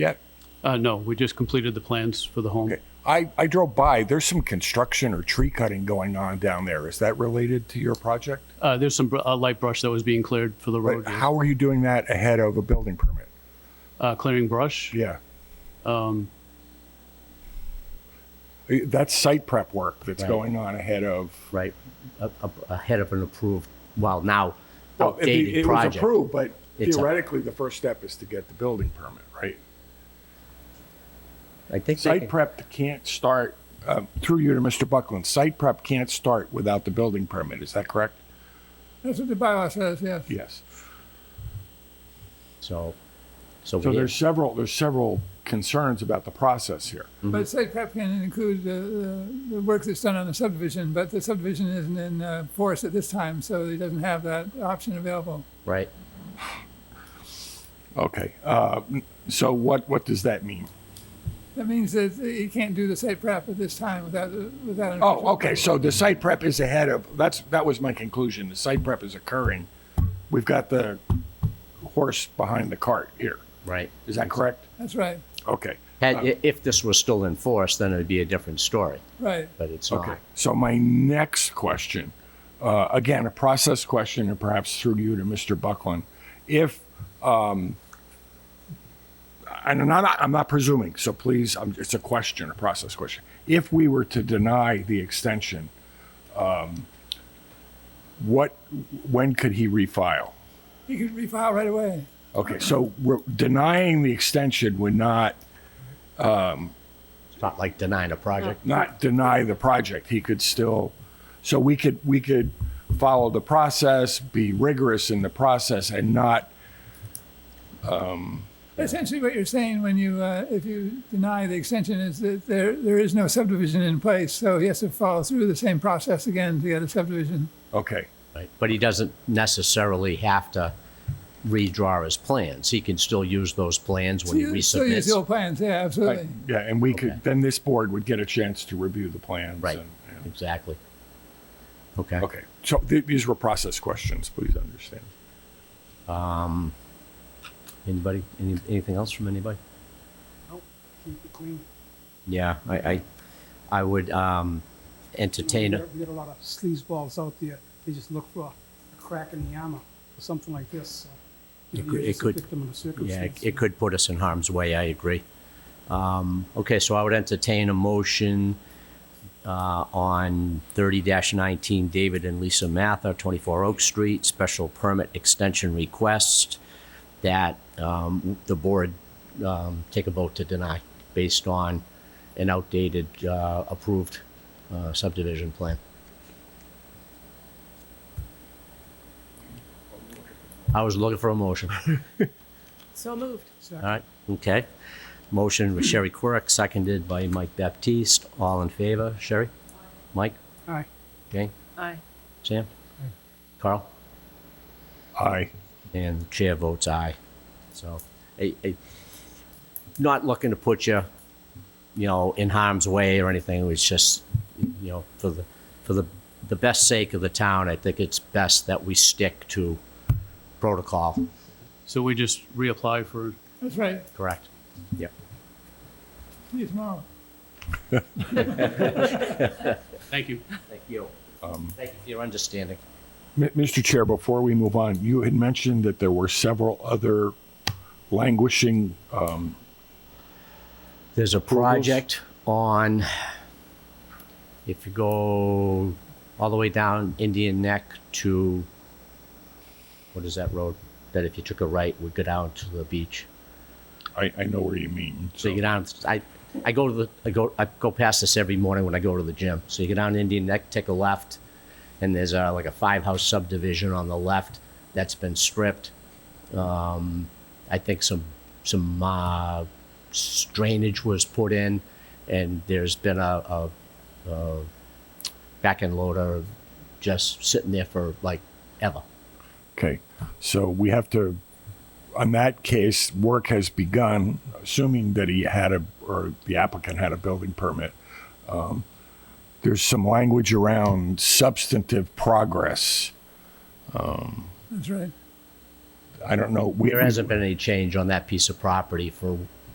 Uh, no, we just completed the plans for the home. I, I drove by, there's some construction or tree cutting going on down there. Is that related to your project? Uh, there's some br- uh, light brush that was being cleared for the road, But how are you doing that ahead of a building permit? uh, clearing brush. Yeah. Um. That's site prep work that's Right. going on ahead of. right, a- a- ahead of an approved, well, now Well, it- outdated It was project. approved, but It's a- theoretically, the first step is to get the building permit, right? I think they Site can- prep can't start, um, through you to Mr. Buckland, site prep can't start without the building permit, is that correct? That's what the bylaw says, yes. Yes. so, so So we there's did, several, there's several concerns about the process here. But site prep can include the, the, the work that's done on the subdivision, but the subdivision isn't in uh, force at this time, so it doesn't have that option available. right? Okay, uh, so what, what does that mean? That means that you can't do the site prep at this time without, uh, without. an official- Oh, okay, so the site prep is ahead of, that's, that was my conclusion, the site prep is occurring. We've got the horse behind the cart here, Right. is that correct? That's right, Okay, Had, i- if this was still in force, then it'd be a different story, right. but it's okay. not. So my next question, uh, again, a process question, and perhaps through you to Mr. Buckland. If, um, and I'm not, I'm not presuming, so please, um, it's a question, a process question. If we were to deny the extension, um, what, when could he refile? You could refile right away. Okay, so we're denying the extension would not, It's not like denying a project. not deny the project. He could still, so we could, we could follow the process, be rigorous in the process and not, Essentially, what you're saying when you, uh, if you deny the extension is that there, there is no subdivision in place, so he has to follow through the same process again to get a subdivision. okay, Right. But he doesn't necessarily have to redraw his plans. He can still use those plans when he Still use the resubmits. old plans, yeah, absolutely. yeah, and we could, then this board would get a chance to review the plans. Right, and- and- exactly. Okay. Okay, so th- these were process questions, please understand. Anybody, any, anything else from anybody? Yeah, I, I, I would, um, entertain, a- We got a lot of sleazeballs out there. They just look for a crack in the armor or something like this. so It maybe could- you're it just a could- Victim of the yeah, circumstance. it- it could put us in harm's way, I agree. Um, okay, so I would entertain a motion, uh, on thirty nineteen, David and Lisa Mather, twenty-four Oak Street, special permit extension request that, um, the board, um, take a vote to deny based on an outdated, uh, approved, uh, subdivision plan. I was looking for a motion. So moved. All right, okay. Motion with Sherry Quirk, seconded by Mike Baptiste. All in favor? Sherry? Mike? Aye. Jane? Aye. Sam? Carl? Aye. And the chair votes aye. So, I, I, not looking to put you, you know, in harm's way or anything. It was just, you know, for the, for the, the best sake of the town, I think it's best that we stick to protocol. So we just reapply for, That's right, Correct. Yep. see you tomorrow. thank you. Thank you. Thank you for your understanding. M- Mr. Chair, before we move on, you had mentioned that there were several other languishing, uh, There's a project on, if you go all the way down Indian Neck to, what is that road? That if you took a right would go down to the beach. I, I know where you mean. So you go down, I, I go to the, I go, I go past this every morning when I go to the gym. So you go down Indian Neck, take a left, and there's uh like a five-house subdivision on the left that's been stripped. Um, I think some some uh, s- drainage was put in, and there's been a, a, a back end loader just sitting there for like ever. Okay, so we have to, on that case, work has begun, assuming that he had a, or the applicant had a building permit. Um, There's some language around substantive progress. That's right. I don't know, we, There hasn't been any change on that piece of property for